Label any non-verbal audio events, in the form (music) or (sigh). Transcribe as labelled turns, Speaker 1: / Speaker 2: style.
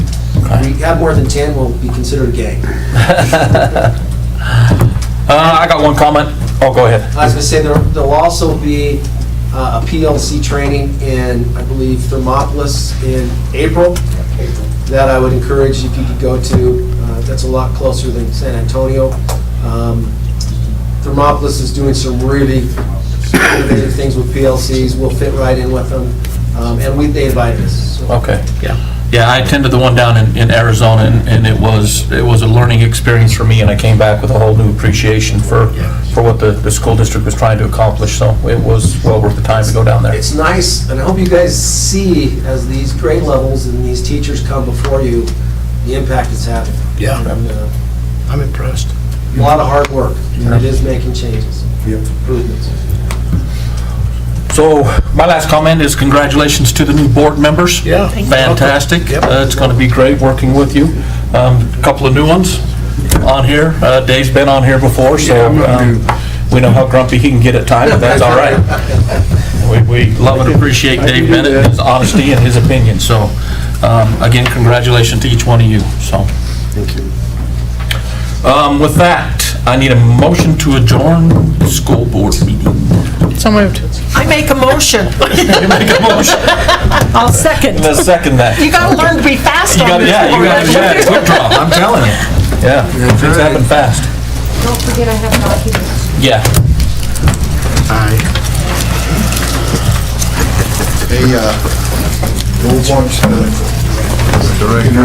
Speaker 1: you have more than 10, will be considered gay.
Speaker 2: (laughs) Uh, I got one comment. Oh, go ahead.
Speaker 1: I was gonna say, there- there'll also be uh, a PLC training in, I believe, Thermopolis in April, that I would encourage if you could go to. Uh, That's a lot closer than San Antonio. Um, Thermopolis is doing some really innovative things with PLCs. We'll fit right in with them, Um, and we, they invited us. so.
Speaker 2: Okay.
Speaker 3: Yeah.
Speaker 2: Yeah, I attended the one down in, in Arizona, and, and it was, it was a learning experience for me, and I came back with a whole new appreciation for, for what the, the school district was trying to accomplish, so it was well worth the time to go down there.
Speaker 1: It's nice, and I hope you guys see, as these grade levels and these teachers come before you, the impact it's having.
Speaker 3: Yeah.
Speaker 1: And, uh,
Speaker 3: I'm impressed.
Speaker 1: A lot of hard work, and it is making changes, improvements.
Speaker 2: So, my last comment is congratulations to the new board members.
Speaker 3: Yeah. Thank you.
Speaker 2: Fantastic.
Speaker 3: Yep.
Speaker 2: Uh, It's going to be great working with you. Um, Couple of new ones on here. Uh, Dave's been on here before, so um, we know how grumpy he can get at times, but that's all right. We- We love and appreciate Dave Bennett, and his honesty and his opinion, so um, again, congratulations to each one of you, so. Thank you. With that, I need a motion to adjourn the school board meeting.
Speaker 4: So moved.
Speaker 5: I make a motion.
Speaker 2: You make a motion.
Speaker 5: I'll second.
Speaker 2: Let's second that.
Speaker 5: You gotta learn to be fast
Speaker 2: You
Speaker 5: on
Speaker 2: gotta,
Speaker 5: this.
Speaker 2: yeah, you
Speaker 5: board.
Speaker 2: gotta, yeah, quick draw, I'm telling you. Yeah, things happen fast.
Speaker 6: Don't forget I have documents.
Speaker 2: Yeah.
Speaker 7: Hey, uh, move on to the director.